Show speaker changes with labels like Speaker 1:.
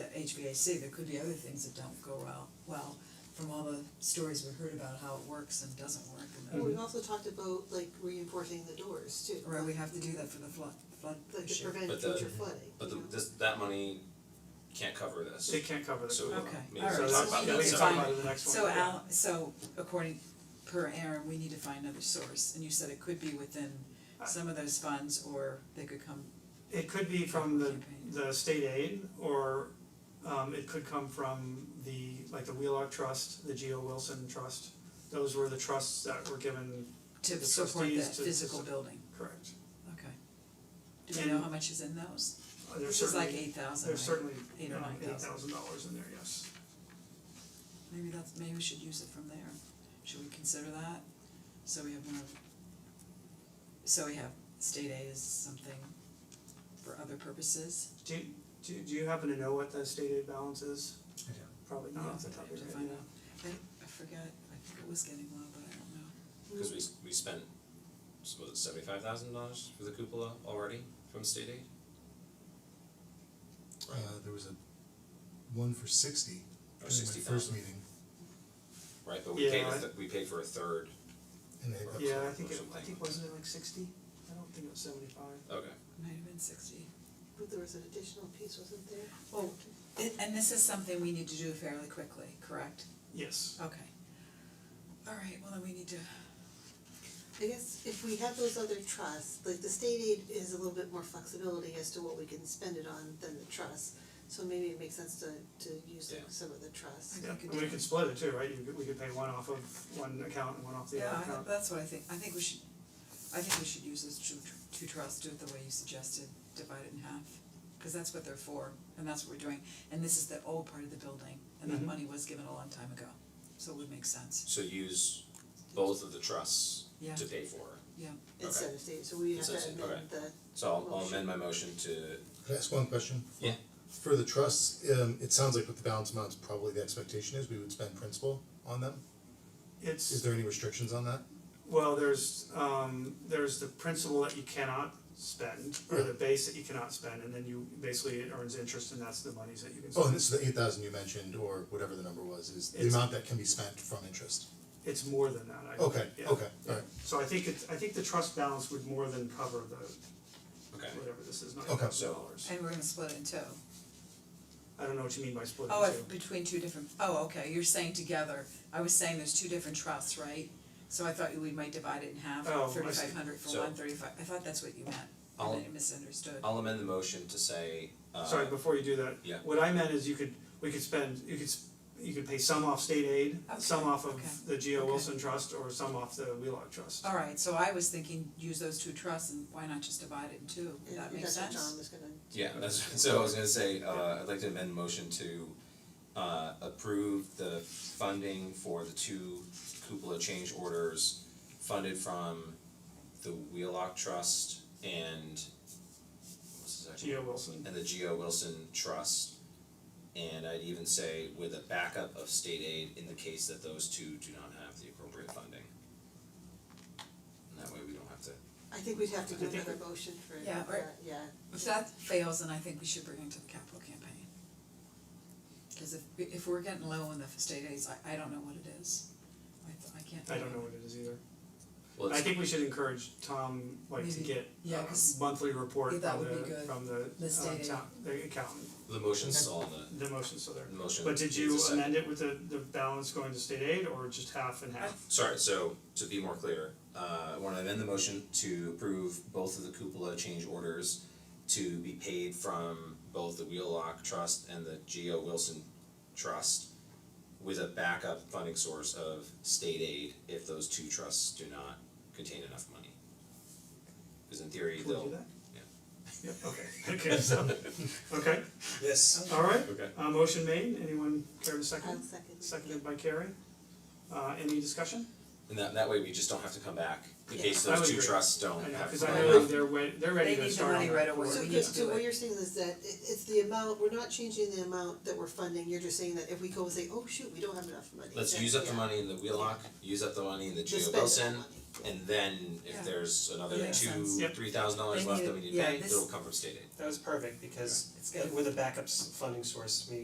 Speaker 1: HVAC, there could be other things that don't go well, well, from all the stories we've heard about how it works and doesn't work and
Speaker 2: Well,
Speaker 1: then,
Speaker 2: we've also talked about like reinforcing the doors too.
Speaker 1: right, we have to do that for the flood, flood
Speaker 2: Mm-hmm. Like to
Speaker 1: issue.
Speaker 2: prevent
Speaker 3: But the-
Speaker 2: future flooding,
Speaker 3: But the,
Speaker 2: you know?
Speaker 3: this, that money can't cover this.
Speaker 4: It can't cover the.
Speaker 3: So,
Speaker 1: Okay,
Speaker 3: maybe
Speaker 1: all right,
Speaker 3: we can
Speaker 1: so
Speaker 3: talk about
Speaker 1: we
Speaker 3: that
Speaker 1: need to
Speaker 3: separately.
Speaker 4: talk about it in the next one.
Speaker 1: So
Speaker 4: yeah.
Speaker 1: Al, so according, per Aaron, we need to find another source, and you said it could be within
Speaker 2: Uh.
Speaker 1: some of those funds, or they could come,
Speaker 4: It could be from the
Speaker 1: Campaign.
Speaker 4: the state aid or um it could come from the like the Wheelock Trust, the Geo Wilson Trust. Those were the trusts that were given,
Speaker 1: to
Speaker 4: The
Speaker 1: support that
Speaker 4: trustees to-
Speaker 1: physical building,
Speaker 4: correct.
Speaker 1: okay. Do we know
Speaker 4: And-
Speaker 1: how much is in those?
Speaker 4: Uh, There's
Speaker 1: This is like
Speaker 4: certainly,
Speaker 1: eight thousand,
Speaker 4: there's certainly
Speaker 1: Eight or nine
Speaker 4: eight
Speaker 1: thousand.
Speaker 4: thousand dollars in there, yes.
Speaker 1: Maybe that's, maybe we should use it from there, should we consider that? So we have more, so we have state aid is something for other purposes,
Speaker 4: Do you, do you- do you happen to know what the state aid balance is?
Speaker 5: I don't.
Speaker 4: Probably
Speaker 1: yeah,
Speaker 4: not off
Speaker 1: to
Speaker 4: the top of your head.
Speaker 1: find out, I I forgot, I think it was getting low, but I don't know.
Speaker 3: Cause we s- we spent, s- was it seventy five thousand dollars for the cupola already from state aid?
Speaker 5: Uh, there was a one for sixty
Speaker 3: Or
Speaker 5: during my
Speaker 3: sixty
Speaker 5: first
Speaker 3: thousand,
Speaker 5: meeting,
Speaker 3: right, but we paid a
Speaker 4: Yeah, I-
Speaker 3: th- we paid for a third,
Speaker 5: and they,
Speaker 3: Or
Speaker 4: Yeah, I
Speaker 3: some-
Speaker 4: think
Speaker 3: or
Speaker 4: it, I
Speaker 3: something.
Speaker 4: think wasn't it like sixty? I don't think it was seventy five.
Speaker 3: okay,
Speaker 1: Might have been sixty.
Speaker 2: But there was an additional piece, wasn't there?
Speaker 1: Well, a- and this is something we need to do fairly quickly, correct?
Speaker 4: Yes.
Speaker 1: Okay. Alright, well then we need to,
Speaker 2: I guess if we have those other trusts, like the state aid is a little bit more flexibility as to what we can spend it on than the trust. So maybe it makes sense to to use like
Speaker 3: Yeah.
Speaker 2: some of the
Speaker 1: I
Speaker 2: trusts.
Speaker 4: Yeah,
Speaker 1: think
Speaker 4: and
Speaker 1: it
Speaker 4: we
Speaker 1: did.
Speaker 4: could split it too, right? You could, we could pay one off of one account and one off the
Speaker 1: yeah,
Speaker 4: other
Speaker 1: I-
Speaker 4: account.
Speaker 1: that's what I think, I think we should, I think we should use those two tr- two trusts, do it the way you suggested, divide it in half. Cause that's what they're for, and that's what we're doing, and this is the old part of the building, and that
Speaker 4: Mhm.
Speaker 1: money was given a long time ago, so it would make sense,
Speaker 3: so use both of the trusts
Speaker 1: yeah,
Speaker 3: to pay for it.
Speaker 1: yeah.
Speaker 2: Instead of state, so we have to
Speaker 3: Instead of
Speaker 2: amend
Speaker 3: state,
Speaker 2: the
Speaker 3: okay. So I'll I'll amend my motion to,
Speaker 5: Can I ask one question?
Speaker 3: Yeah.
Speaker 5: For the trusts, um, it sounds like with the balance amounts, probably the expectation is we would spend principal on them. Is
Speaker 4: It's,
Speaker 5: there any restrictions on that?
Speaker 4: well, there's um there's the principal that you cannot spend or the base that you cannot spend and then you basically it earns interest and that's the monies that you can spend.
Speaker 5: Oh, and this is the eight thousand you mentioned, or whatever the number was, is the
Speaker 4: It's-
Speaker 5: amount that can be spent from interest.
Speaker 4: It's more than that, I
Speaker 5: Okay,
Speaker 4: yeah.
Speaker 5: okay, alright,
Speaker 4: So I think it's, I think the trust balance would more than cover the
Speaker 3: okay,
Speaker 4: whatever this is, nine
Speaker 5: Okay.
Speaker 4: thousand dollars.
Speaker 1: And we're gonna split it in two.
Speaker 4: I don't know what you mean by split
Speaker 1: Oh,
Speaker 4: the
Speaker 1: if
Speaker 4: two.
Speaker 1: between two different, oh, okay, you're saying together, I was saying there's two different trusts, right? So I thought we might divide it in half,
Speaker 4: Oh, I see.
Speaker 1: thirty five hundred for
Speaker 3: So-
Speaker 1: one, thirty five, I thought that's what you meant,
Speaker 3: I'll-
Speaker 1: and I misunderstood.
Speaker 3: I'll amend the motion to say, uh,
Speaker 4: Sorry, before you do that,
Speaker 3: yeah.
Speaker 4: what I meant is you could, we could spend, you could, s- you could pay some off state aid, some
Speaker 1: Okay,
Speaker 4: off
Speaker 1: okay,
Speaker 4: of the Geo
Speaker 1: okay.
Speaker 4: Wilson Trust or some off the Wheelock Trust.
Speaker 1: Alright, so I was thinking, use those two trusts and why not just divide it in two, that makes
Speaker 2: that's what
Speaker 1: sense?
Speaker 2: John was gonna
Speaker 3: Yeah, that's, so I was gonna say, uh, I'd like to amend the motion to, uh, approve the funding for the two cupola change orders funded from the Wheelock Trust and what's the second?
Speaker 4: Geo Wilson.
Speaker 3: And the Geo Wilson Trust. And I'd even say with a backup of state aid in the case that those two do not have the appropriate funding. And that way we don't have to,
Speaker 2: I think we'd have to do
Speaker 4: I think
Speaker 2: another motion for that,
Speaker 1: Yeah,
Speaker 2: yeah.
Speaker 1: or- If that fails, then I think we should bring it to the capital campaign. Cause if if we're getting low on the state aids, I I don't know what it is, I th- I can't.
Speaker 4: I don't know what it is either.
Speaker 3: well,
Speaker 4: I
Speaker 3: it's,
Speaker 4: think we should encourage Tom, like, to
Speaker 1: Maybe.
Speaker 4: get
Speaker 1: Yeah,
Speaker 4: a
Speaker 1: 'cause-
Speaker 4: monthly report
Speaker 1: Yeah, that
Speaker 4: from
Speaker 1: would be
Speaker 4: the,
Speaker 1: good.
Speaker 4: from the,
Speaker 1: The
Speaker 4: uh,
Speaker 1: state
Speaker 4: town, the accountant,
Speaker 3: the motion's all in the,
Speaker 4: the motion, so there.
Speaker 3: the motion
Speaker 4: But did
Speaker 3: needs a
Speaker 4: you
Speaker 3: second.
Speaker 4: amend it with the, the balance going to state aid or just half and half?
Speaker 3: Sorry, so to be more clear, uh, I wanna amend the motion to approve both of the cupola change orders to be paid from both the Wheelock Trust and the Geo Wilson Trust with a backup funding source of state aid if those two trusts do not contain enough money. Cause in theory,
Speaker 4: Can we do
Speaker 3: they'll,
Speaker 4: that?
Speaker 3: yeah.
Speaker 4: Yeah, okay, okay, so, okay,
Speaker 3: yes,
Speaker 4: alright,
Speaker 3: okay,
Speaker 4: uh, motion made, anyone care to
Speaker 2: I'll
Speaker 4: second?
Speaker 2: second.
Speaker 4: Seconded by Carrie, uh, any discussion?
Speaker 3: and that that way we just don't have to come back in
Speaker 2: Yeah.
Speaker 3: case
Speaker 4: I would
Speaker 3: those two
Speaker 4: agree.
Speaker 3: trusts don't
Speaker 4: I know,
Speaker 3: have
Speaker 4: cause I
Speaker 3: money.
Speaker 4: know they're wa- they're ready
Speaker 1: They
Speaker 4: to
Speaker 1: need the
Speaker 4: start on
Speaker 1: money
Speaker 4: that
Speaker 1: right away.
Speaker 4: board.
Speaker 2: So
Speaker 1: we need
Speaker 2: Chris,
Speaker 1: to
Speaker 2: so
Speaker 1: do
Speaker 2: what
Speaker 1: it.
Speaker 2: you're saying is that it it's the amount, we're not changing the amount that we're funding, you're just saying that if we go and say, oh shoot, we don't have enough money.
Speaker 3: Let's
Speaker 2: then,
Speaker 3: use up the
Speaker 2: yeah,
Speaker 3: money in the Wheelock, use up the money in the
Speaker 2: just
Speaker 3: Geo
Speaker 2: spend that
Speaker 3: Wilson,
Speaker 2: money.
Speaker 3: And then
Speaker 1: Yeah.
Speaker 3: if there's another
Speaker 1: Yeah.
Speaker 3: two,
Speaker 1: Makes
Speaker 4: sense.
Speaker 3: three thousand dollars
Speaker 1: They
Speaker 3: left
Speaker 1: need-
Speaker 3: that we need to
Speaker 1: yeah,
Speaker 3: pay,
Speaker 1: this-
Speaker 3: it'll come from state aid.
Speaker 6: That was perfect because uh,
Speaker 1: It's good.
Speaker 6: with a backup s- funding source, meaning